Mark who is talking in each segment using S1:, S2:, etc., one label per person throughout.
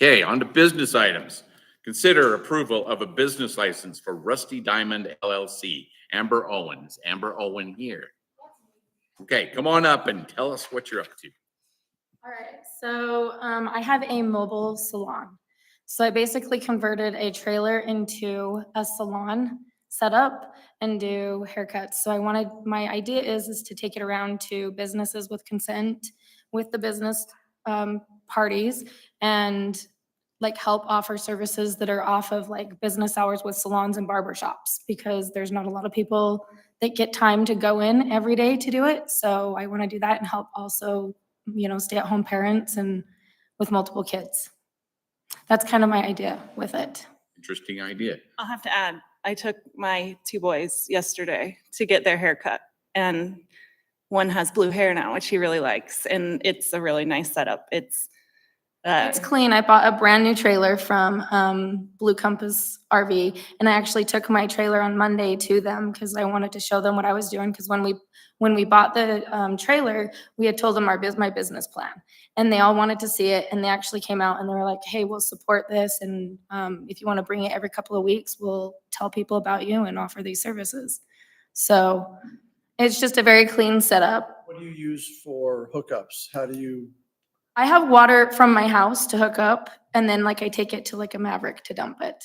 S1: Okay, on to business items. Consider approval of a business license for Rusty Diamond LLC, Amber Owens, Amber Owen here. Okay, come on up and tell us what you're up to.
S2: All right, so um, I have a mobile salon. So I basically converted a trailer into a salon setup and do haircuts. So I wanted, my idea is, is to take it around to businesses with consent, with the business um, parties, and like help offer services that are off of like business hours with salons and barber shops, because there's not a lot of people that get time to go in every day to do it. So I want to do that and help also you know, stay-at-home parents and with multiple kids. That's kind of my idea with it.
S1: Interesting idea.
S3: I'll have to add, I took my two boys yesterday to get their hair cut and one has blue hair now, which he really likes, and it's a really nice setup. It's uh,
S2: It's clean. I bought a brand new trailer from um, Blue Compass RV, and I actually took my trailer on Monday to them because I wanted to show them what I was doing. Because when we when we bought the um, trailer, we had told them our bus my business plan, and they all wanted to see it. And they actually came out and they were like, "Hey, we'll support this, and um, if you want to bring it every couple of weeks, we'll tell people about you and offer these services." So it's just a very clean setup.
S4: What do you use for hookups? How do you,
S2: I have water from my house to hook up, and then like I take it to like a Maverick to dump it.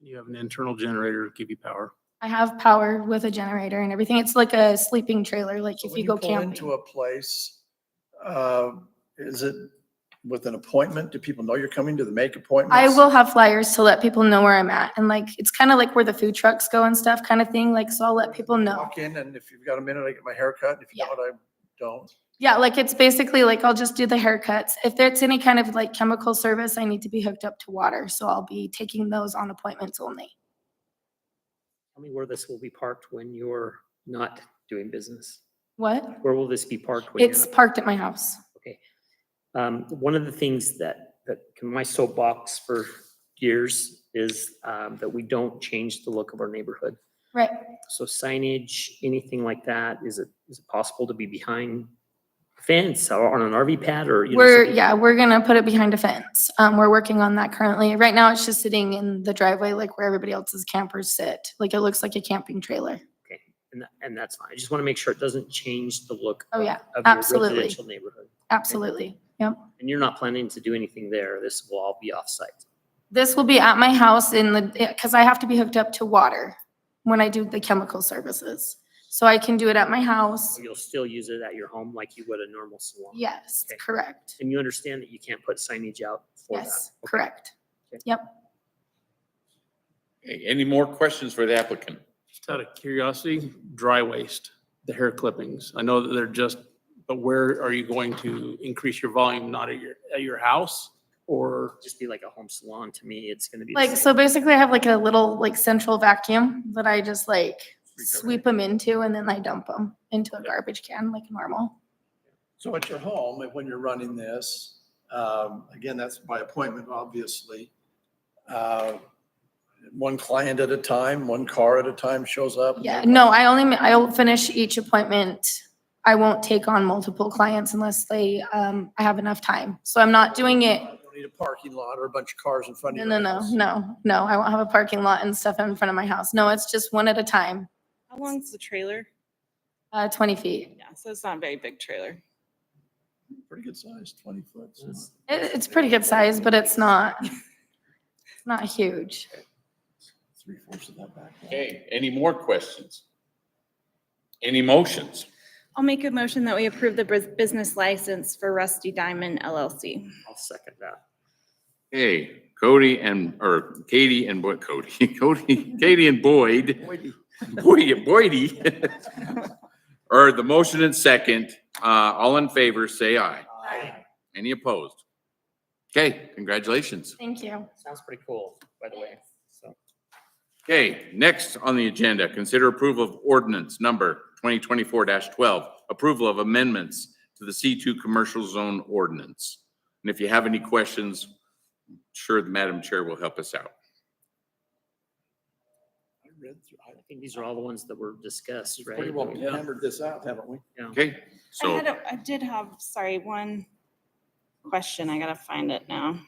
S5: You have an internal generator to give you power.
S2: I have power with a generator and everything. It's like a sleeping trailer, like
S4: so
S2: if
S4: when
S2: you
S4: you
S2: go
S4: pull into
S2: camping.
S4: a place, uh, is it with an appointment? Do people know you're coming? Do they make appointments?
S2: I will have flyers to let people know where I'm at, and like it's kind of like where the food trucks go and stuff, kind of thing. Like so, I'll let people know.
S4: Walk in and if you've got a minute, I get my hair cut. If you
S2: Yeah.
S4: don't, I don't.
S2: Yeah, like it's basically like I'll just do the haircuts. If there's any kind of like chemical service, I need to be hooked up to water, so I'll be taking those on appointments only.
S6: Tell me where this will be parked when you're not doing business.
S2: What?
S6: Where will this be parked? when you're
S2: It's
S6: not-
S2: parked at my house.
S6: Um, one of the things that, that my soapbox for years is, um, that we don't change the look of our neighborhood.
S2: Right.
S6: So signage, anything like that, is it, is it possible to be behind a fence or on an RV pad or? you know,
S2: We're,
S6: something?
S2: yeah, we're gonna put it behind a fence. Um, we're working on that currently. Right now, it's just sitting in the driveway, like where everybody else's campers sit. Like it looks like a camping trailer.
S6: And, that- and that's fine. I just want to make sure it doesn't change the look.
S2: Oh,
S6: of-
S2: yeah,
S6: of your
S2: absolutely.
S6: Residential neighborhood.
S2: Absolutely. Yep.
S6: And you're not planning to do anything there. This will all be offsite.
S2: This will be at my house in the, cause I have to be hooked up to water when I do the chemical services. So I can do it at my house.
S6: You'll still use it at your home like you would a normal salon.
S2: Yes,
S6: Okay.
S2: correct.
S6: And you understand that you can't put signage out for that.
S2: Yes, correct.
S1: Okay, Any more questions for the applicant?
S5: Just out of curiosity, dry waste, the hair clippings. I know that they're just, but where are you going to increase your volume? Not at your, at your house? Or
S6: Just be like a home salon. To me, it's gonna be. the
S2: Like,
S6: same.
S2: so basically I have like a little like central vacuum that I just like sweep them into and then I dump them into a garbage can like normal.
S4: So at your home, and when you're running this, um, again, that's by appointment, obviously. Uh, One client at a time, one car at a time shows up. and
S2: Yeah,
S4: they're-
S2: no, I only, ma- I'll finish each appointment. I won't take on multiple clients unless they, um, I have enough time. So I'm not doing it,
S4: You don't Need a parking lot or a bunch of cars in front of
S2: no,
S4: you.
S2: no, no, no, no, I won't have a parking lot and stuff in front of my house. No, it's just one at a time,
S3: how long's the trailer?
S2: uh, twenty feet.
S3: Yeah, so it's not a very big trailer.
S4: Pretty good size, twenty foot. so-
S6: Yes.
S2: It, it's pretty good size, but it's not, it's not huge.
S4: Three fourths of that back.
S1: Okay, any more questions? Any motions?
S3: I'll make a motion that we approve the bus- business license for Rusty Diamond LLC.
S6: I'll second that.
S1: Hey, Cody and, or Katie and Boyd, Cody, Cody, Katie and Boyd. Boyd, Boydie. Or the motion and second, uh, all in favor, say aye. Any opposed? Okay, congratulations.
S2: Thank you.
S6: Sounds pretty cool, by the way. So
S1: Okay, next on the agenda, consider approval of ordinance number twenty twenty-four twelve, approval of amendments to the C two commercial zone ordinance. And if you have any questions, I'm sure the Madam Chair will help us out.
S4: I read through, I
S6: I think these are all the ones that were discussed, right?
S4: pretty well
S5: Yeah.
S4: hammered this out, haven't we?
S1: Okay,
S3: I
S1: so.
S3: had, a- I did have, sorry, one question. I gotta find it now.